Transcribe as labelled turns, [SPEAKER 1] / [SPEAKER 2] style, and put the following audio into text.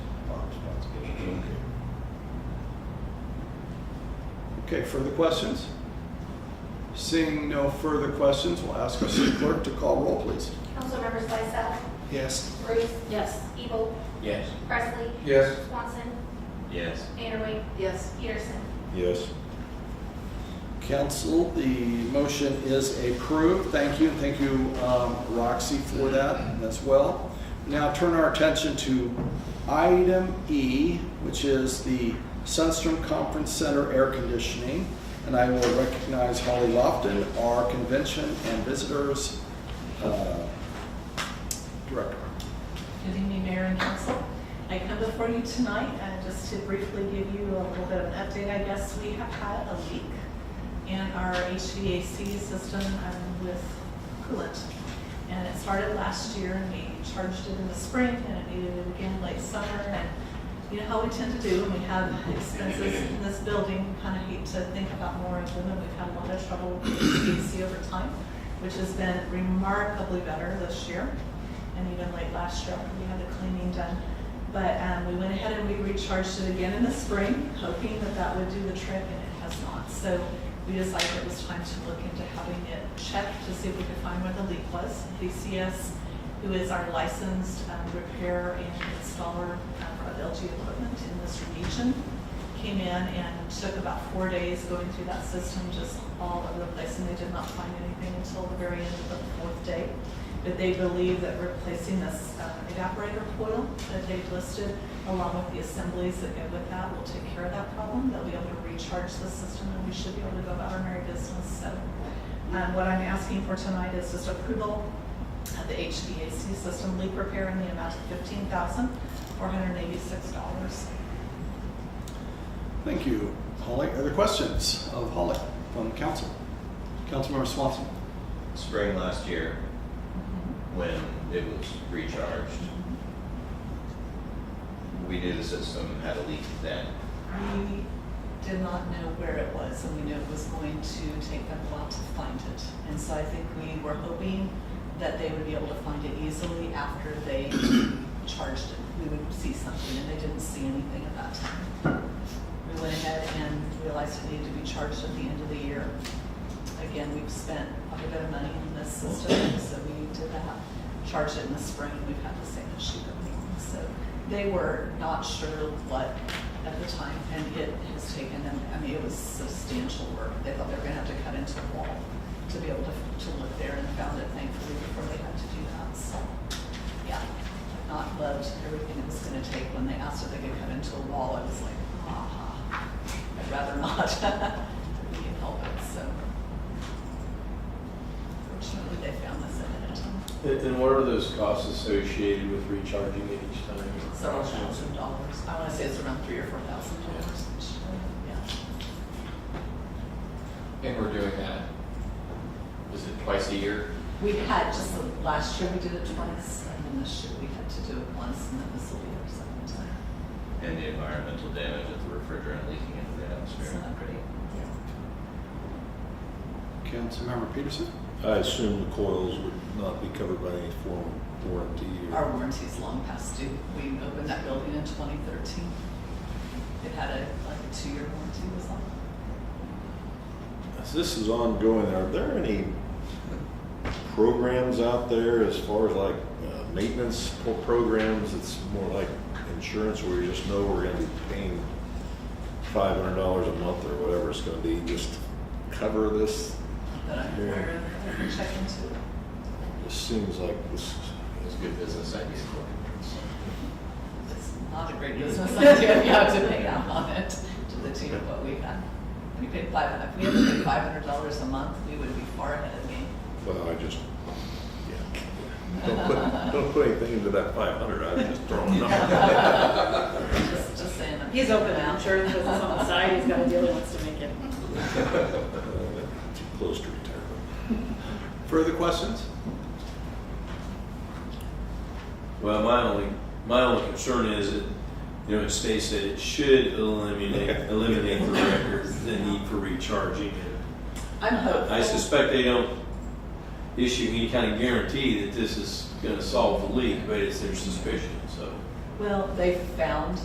[SPEAKER 1] Okay, further questions? Seeing no further questions, we'll ask our city clerk to call roll, please.
[SPEAKER 2] Councilmember Slysak,
[SPEAKER 1] Yes.
[SPEAKER 2] Bruce,
[SPEAKER 3] Yes.
[SPEAKER 2] Evil,
[SPEAKER 4] Yes.
[SPEAKER 2] Presley,
[SPEAKER 5] Yes.
[SPEAKER 2] Swanson,
[SPEAKER 4] Yes.
[SPEAKER 2] Vanderway,
[SPEAKER 3] Yes.
[SPEAKER 2] Peterson.
[SPEAKER 4] Yes.
[SPEAKER 1] Council, the motion is approved. Thank you, and thank you, um, Roxy, for that as well. Now turn our attention to item E, which is the Sunstrom Conference Center air conditioning. And I will recognize Holly Lofton, our Convention and Visitors uh, Director.
[SPEAKER 6] Good evening, Mayor and Council. I come before you tonight uh, just to briefly give you a little bit of an update. I guess we have had a leak in our HVAC system um, with coolant. And it started last year and we charged it in the spring and it needed it again late summer. And you know how we tend to do when we have expenses in this building, kind of hate to think about more of them. And we've had a lot of trouble with HVAC over time, which has been remarkably better this year and even late last year, after we had the cleaning done. But um, we went ahead and we recharged it again in the spring, hoping that that would do the trick, and it has not. So we decided it was time to look into having it checked to see if we could find where the leak was. VCS, who is our licensed um, repair and installer um, of LG equipment in this region, came in and took about four days going through that system, just all over the place, and they did not find anything until the very end of the fourth day. But they believe that replacing this uh, evaporator coil that they've listed, along with the assemblies that go with that, will take care of that problem. They'll be able to recharge the system, and we should be able to go about our merry business. So um, what I'm asking for tonight is just approval of the HVAC system leak repair in the amount of fifteen thousand, four hundred and eighty-six dollars.
[SPEAKER 1] Thank you, Holly. Other questions of Holly from council? Councilmember Swanson.
[SPEAKER 4] Spring last year, when it was recharged, we knew the system had a leak then.
[SPEAKER 6] We did not know where it was, and we knew it was going to take them a while to find it. And so I think we were hoping that they would be able to find it easily after they charged it. We would see something, and they didn't see anything at that time. We went ahead and realized it needed to be charged at the end of the year. Again, we've spent quite a bit of money in this system, so we did that, charged it in the spring, we've had the same issue going on. So they were not sure what at the time, and it has taken them, I mean, it was substantial work. They thought they were gonna have to cut into the wall to be able to, to look there and found it thankfully before they had to do that, so, yeah. I've Not loved everything it was gonna take. When they asked if they could cut into a wall, I was like, ah, I'd rather not. We can help it, so. Fortunately, they found this ahead of time.
[SPEAKER 5] And- And what are those costs associated with recharging it each time?
[SPEAKER 6] Several thousand dollars. I want to say it's around three or four thousand dollars. Yeah.
[SPEAKER 7] And we're doing that, is it twice a year?
[SPEAKER 6] We had just the last year, we did it twice, and then this year we had to do it once, and then this will be our second time.
[SPEAKER 4] And the environmental damage of the refrigerant leaking into the
[SPEAKER 6] It's
[SPEAKER 4] atmosphere.
[SPEAKER 6] not pretty. Yeah.
[SPEAKER 1] Councilmember Peterson.
[SPEAKER 8] I assume the coils would not be covered by any form of warranty
[SPEAKER 6] Our
[SPEAKER 8] or,
[SPEAKER 6] warranty's long past due. We opened that building in twenty thirteen. It had a, like a two-year warranty was on it.
[SPEAKER 8] As this is ongoing, are there any programs out there as far as like uh, maintenance or programs, it's more like insurance where you just know we're gonna be paying five hundred dollars a month or whatever it's gonna be, just to cover this?
[SPEAKER 6] But I'm
[SPEAKER 8] Yeah.
[SPEAKER 6] aware of, I can check into it.
[SPEAKER 8] This seems like this,
[SPEAKER 7] It's a good business idea.
[SPEAKER 6] It's not a great business idea, we have to pay out on it to the tune of what we had. We paid five, if we had to pay five hundred dollars a month, we would be far ahead of the game.
[SPEAKER 8] well, I just, yeah. Don't put, don't put anything into that five hundred, I'm just throwing it out.
[SPEAKER 6] Just, just saying. that.
[SPEAKER 3] He's open now. Insurance business on the side. He's got a deal he wants to make it.
[SPEAKER 8] Uh, Too close to retirement.
[SPEAKER 1] Further questions?
[SPEAKER 5] Well, my only, my only concern is that, you know, it states that it should eliminate, eliminate the record, the need for recharging it.
[SPEAKER 6] I'm hopeful.
[SPEAKER 5] I suspect they don't issue any kind of guarantee that this is gonna solve the leak, but it's their suspicion, so.
[SPEAKER 6] Well, they found